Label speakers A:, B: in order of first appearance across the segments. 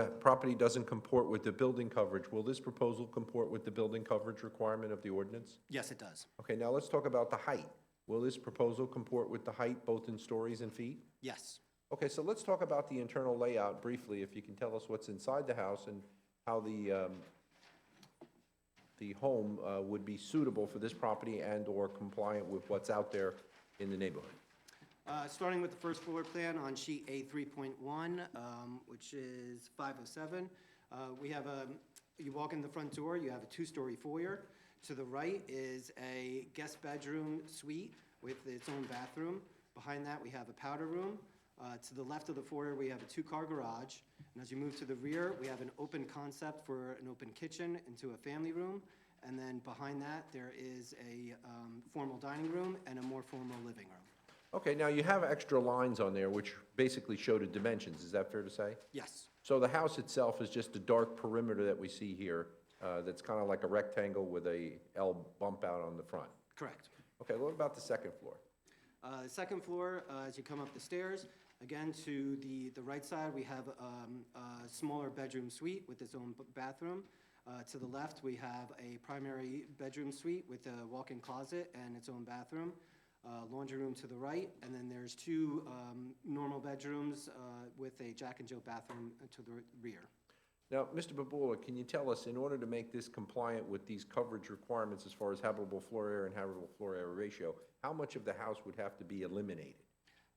A: that property doesn't comport with the building coverage, will this proposal comport with the building coverage requirement of the ordinance?
B: Yes, it does.
A: Okay, now let's talk about the height. Will this proposal comport with the height, both in stories and feet?
B: Yes.
A: Okay, so let's talk about the internal layout briefly, if you can tell us what's inside the house and how the, um, the home uh, would be suitable for this property and/or compliant with what's out there in the neighborhood.
B: Uh, Starting with the first floor plan on sheet A 3.1, um, which is 507, uh, we have a, you walk in the front door, you have a two-story foyer. To the right is a guest bedroom suite with its own bathroom. Behind that, we have a powder room. Uh, To the left of the foyer, we have a two-car garage. And as you move to the rear, we have an open concept for an open kitchen into a family room. And then behind that, there is a um, formal dining room and a more formal living room.
A: Okay, now you have extra lines on there which basically show the dimensions, is that fair to say?
B: Yes.
A: So the house itself is just a dark perimeter that we see here, uh, that's kind of like a rectangle with a L bump out on the front.
B: Correct.
A: Okay, what about the second floor?
B: Uh, the Second floor, uh, as you come up the stairs, again, to the, the right side, we have um, a smaller bedroom suite with its own b- bathroom. Uh, To the left, we have a primary bedroom suite with a walk-in closet and its own bathroom, uh, laundry room to the right, and then there's two um, normal bedrooms uh, with a Jack and Jill bathroom uh, to the rear.
A: Now, Mr. Babula, can you tell us, in order to make this compliant with these coverage requirements as far as habitable floor area and habitable floor area ratio, how much of the house would have to be eliminated?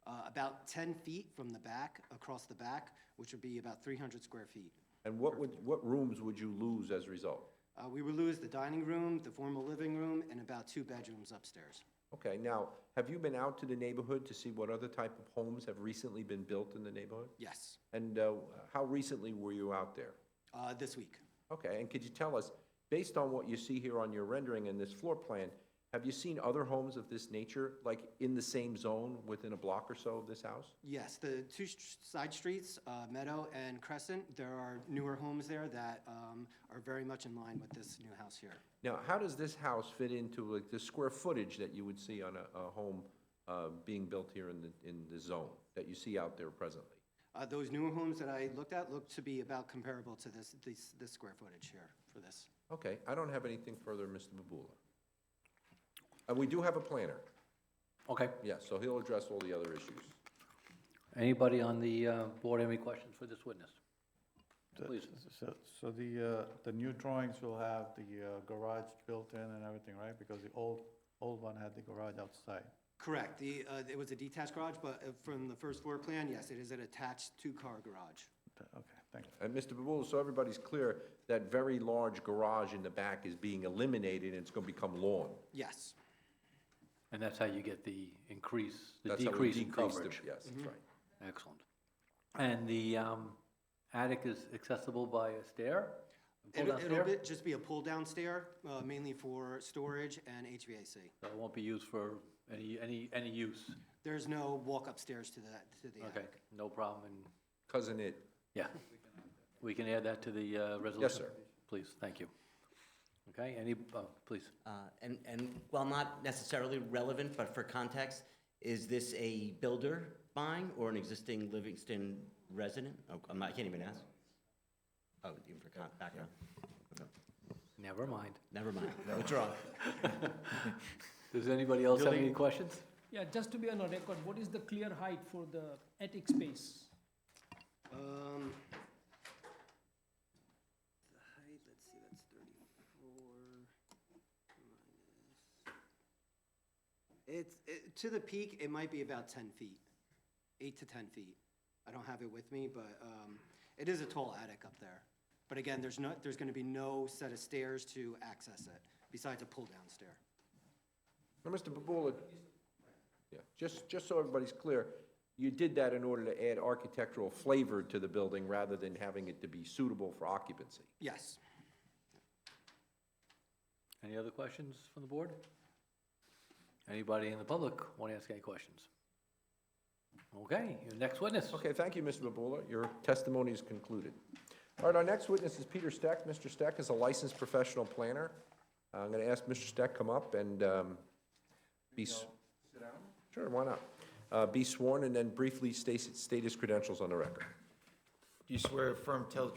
B: Uh, About 10 feet from the back, across the back, which would be about 300 square feet.
A: And what would, what rooms would you lose as a result?
B: Uh, We would lose the dining room, the formal living room, and about two bedrooms upstairs.
A: Okay, now, have you been out to the neighborhood to see what other type of homes have recently been built in the neighborhood?
B: Yes,
A: And uh, how recently were you out there?
B: uh, this week.
A: Okay, and could you tell us, based on what you see here on your rendering and this floor plan, have you seen other homes of this nature, like in the same zone, within a block or so of this house?
B: Yes, the two sh- side streets, uh, Meadow and Crescent, there are newer homes there that um, are very much in line with this new house here.
A: Now, how does this house fit into like the square footage that you would see on a, a home uh, being built here in the, in the zone that you see out there presently?
B: Uh, Those newer homes that I looked at look to be about comparable to this, this this square footage here for this.
A: Okay, I don't have anything further, Mr. Babula. And we do have a planner,
C: Okay.
A: yes, so he'll address all the other issues.
C: Anybody on the uh, board have any questions for this witness? Please.
D: So, so the, uh, the new drawings will have the uh, garage built in and everything, right? Because the old, old one had the garage outside.
B: Correct, the, uh, it was a detached garage, but uh, from the first floor plan, yes, it is an attached two-car garage.
D: Th- Okay, thank you.
A: And Mr. Babula, Uh, so everybody's clear, that very large garage in the back is being eliminated and it's gonna become lawn.
B: Yes.
C: And that's how you get the increase, the
A: That's how we
C: decrease in
A: decrease the-
C: coverage? Mm-hmm.
A: Yes, that's right.
C: Excellent. And the um, attic is accessible by a stair? A
B: It'll,
C: pull-down
B: it'll
C: stair?
B: be- just be a pull-down stair, uh, mainly for storage and HVAC.
C: So it won't be used for any, any, any use?
B: There's no walk upstairs to the, to the
C: Okay,
B: attic.
C: no problem, and,
A: Cousin it,
C: yeah. We can add that to the uh, resolution?
A: sir.
C: Please, thank you. Okay, any, uh, please.
E: Uh, And, and while not necessarily relevant, but for context, is this a builder buying or an existing Livingston resident? Oh, I'm not- I can't even ask. Oh, even for con- background.
C: Never mind.
E: Never mind, withdraw.
C: Does anybody else have any
D: Building-
C: questions?
F: Yeah, just to be on a record, what is the clear height for the attic space?
B: Um, the height, let's see, that's thirty-four. minus- It's, it, to the peak, it might be about ten feet, eight to ten feet. I don't have it with me, but, um, it is a tall attic up there. But again, there's no, there's gonna be no set of stairs to access it, besides a pull-down stair.
A: Now, Mr. Babula, yeah, just, just so everybody's clear, you did that in order to add architectural flavor to the building rather than having it to be suitable for occupancy.
B: Yes.
C: Any other questions from the board? Anybody in the public want to ask any questions? Okay, your next witness.
A: Okay, thank you, Mr. Babula. Your testimony is concluded. All right, our next witness is Peter Steck. Mr. Steck is a licensed professional planner. Uh, I'm going to ask Mr. Steck come up and um, be... Sit down? Sure, why not? Uh, Be sworn and then briefly state state his credentials on the record.
G: Do you swear affirm tell the